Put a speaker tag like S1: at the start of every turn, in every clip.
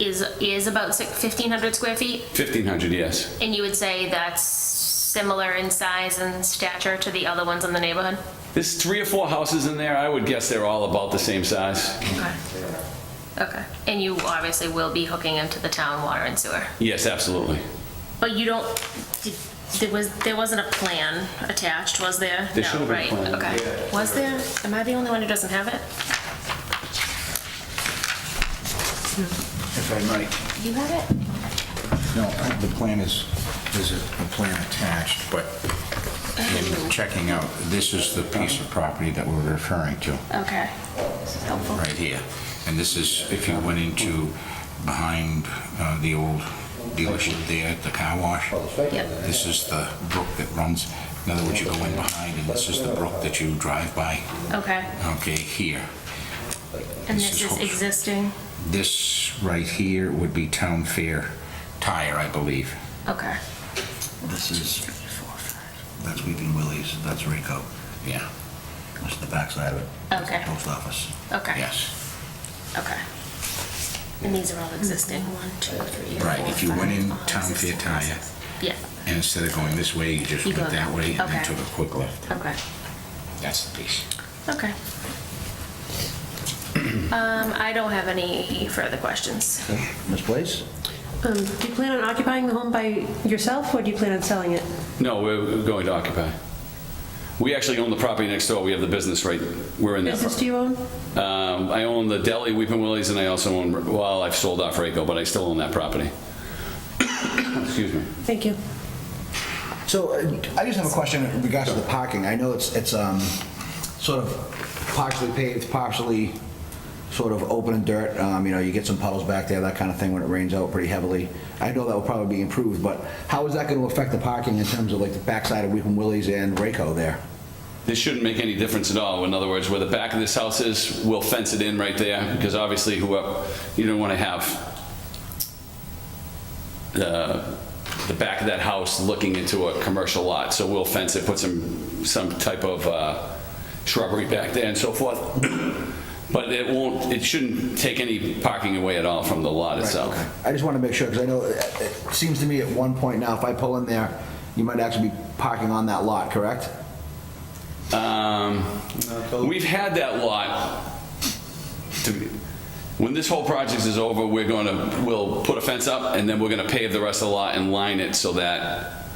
S1: is, is about six- 1,500 square feet?
S2: 1,500, yes.
S1: And you would say that's similar in size and stature to the other ones in the neighborhood?
S2: There's three or four houses in there. I would guess they're all about the same size.
S1: Okay. Okay. And you obviously will be hooking into the town water and sewer?
S2: Yes, absolutely.
S1: But you don't, did- there was, there wasn't a plan attached, was there?
S2: There should have been a plan,
S1: No, right, okay. Was there? Am I the only one who doesn't have it?
S3: If I might,
S1: You have it?
S3: no, the plan is, there's a plan attached, but in checking out, this is the piece of property that we're referring to,
S1: Okay. This is helpful.
S3: right here. And this is, if you went into behind uh, the old dealership there, the car wash,
S1: Yep.
S3: this is the brook that runs, in other words, you go in behind, and this is the brook that you drive by,
S1: Okay.
S3: okay, here.
S1: And
S3: This
S1: this
S3: is
S1: is
S3: hopeful.
S1: existing?
S3: This right here would be Town Fair Tire, I believe.
S1: Okay.
S4: This is, that's Weeping Willie's, that's Rico,
S3: Yeah,
S4: that's the backside of it. That's the
S1: Okay.
S4: Post office.
S1: Okay.
S3: yes.
S1: Okay. And these are all existing, one, two, three,
S3: Right,
S1: four,
S3: if you went
S1: five,
S3: in
S1: all
S3: town
S1: existing
S3: Fair Tire.
S1: houses. Yeah,
S3: And instead of going this way, you just
S1: You
S3: went
S1: go
S3: that way and then
S1: okay.
S3: took a quick left.
S1: okay,
S3: That's the piece.
S1: okay. Um, I don't have any further questions.
S4: Ms. Place?
S5: Um, Do you plan on occupying the home by yourself, or do you plan on selling it?
S2: No, we're we're going to occupy. We actually own the property next door. We have the business right, we're in that.
S5: Business do you own?
S2: pro- Um, I own the deli, Weeping Willie's, and I also own, well, I've sold off Rayco, but I still own that property. Excuse me.
S5: Thank you.
S4: So uh, I just have a question in regards to the parking. I know it's, it's um, sort of partially paved, partially sort of open and dirt. Um, You know, you get some puddles back there, that kind of thing, when it rains out pretty heavily. I know that will probably be improved, but how is that going to affect the parking in terms of like the backside of Weeping Willie's and Rayco there?
S2: This shouldn't make any difference at all. In other words, where the back of this house is, we'll fence it in right there, because obviously whoever, you don't want to have the, the back of that house looking into a commercial lot, so we'll fence it, put some, some type of uh, shrubbery back there and so forth. But it won't, it shouldn't take any parking away at all from the lot itself.
S4: Okay. I just want to make sure, because I know, uh, it it seems to me at one point now, if I pull in there, you might actually be parking on that lot, correct?
S2: Um, We've had that lot. to be- When this whole project is over, we're gonna, we'll put a fence up, and then we're gonna pave the rest of the lot and line it so that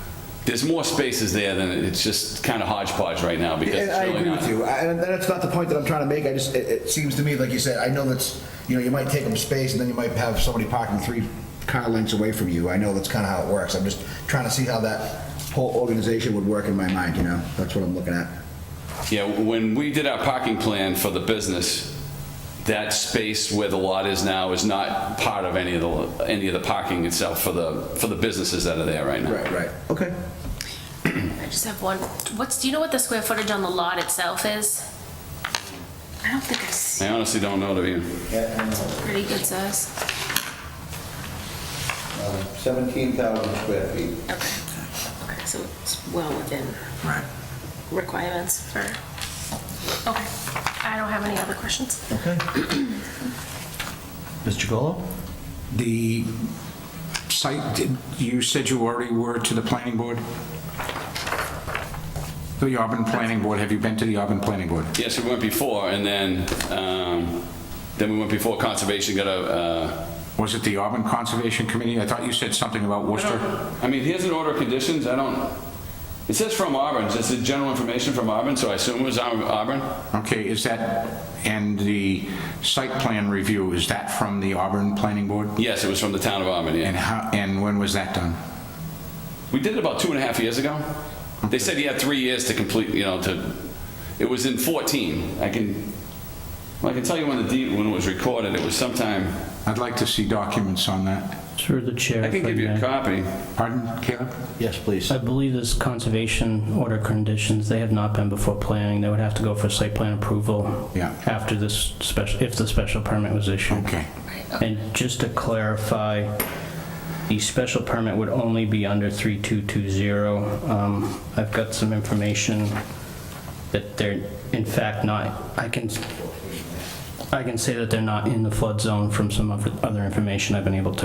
S2: there's more spaces there than, it's just kind of hodgepodge right now because
S4: And
S2: it's
S4: I
S2: really
S4: agree
S2: not.
S4: with you, I- and that's not the point that I'm trying to make, I just, it, it seems to me, like you said, I know that's, you know, you might take up space, and then you might have somebody parking three car lengths away from you, I know that's kinda how it works, I'm just trying to see how that whole organization would work in my mind, you know, that's what I'm looking at.
S2: Yeah, when we did our parking plan for the business, that space where the lot is now is not part of any of the, any of the parking itself for the, for the businesses that are there right now.
S4: right. Okay.
S1: I just have one, what's, do you know what the square footage on the lot itself is? I don't think I see,
S2: I honestly don't know, to be,
S1: pretty good size.
S6: 17,000 Uh, square feet.
S1: Okay, okay, so it's well within
S4: Right.
S1: requirements for, okay. I don't have any other questions.
S4: Okay. Mr. Golo?
S3: The site, did- you said you already were to the planning board? The Auburn Planning Board, have you been to the Auburn Planning Board?
S2: Yes, we went before, and then, um, then we went before conservation got a, uh,
S3: Was it the Auburn Conservation Committee? I thought you said something about Worcester.
S2: I mean, here's an order of conditions, I don't, it says from Auburn, it's the general information from Auburn, so I assume it was Au- Auburn.
S3: Okay, is that, and the site plan review, is that from the Auburn Planning Board?
S2: Yes, it was from the town of Auburn,
S3: And
S2: yeah.
S3: how, and when was that done?
S2: We did it about two and a half years ago. They said he had three years to complete, you know, to, it was in 14. I can, well, I can tell you when the deed, when it was recorded, it was sometime,
S3: I'd like to see documents on that.
S7: Through the chair.
S2: I can
S7: if
S2: give you a
S7: may.
S2: copy.
S3: Pardon, Caleb?
S4: Yes, please.
S7: I believe this conservation order conditions, they have not been before planning. They would have to go for site plan approval.
S3: Yeah.
S7: After this special, if the special permit was issued.
S3: Okay.
S7: And just to clarify, the special permit would only be under 3220. Um, I've got some information that they're, in fact, not, I can, I can say that they're not in the flood zone from some of the other information I've been able to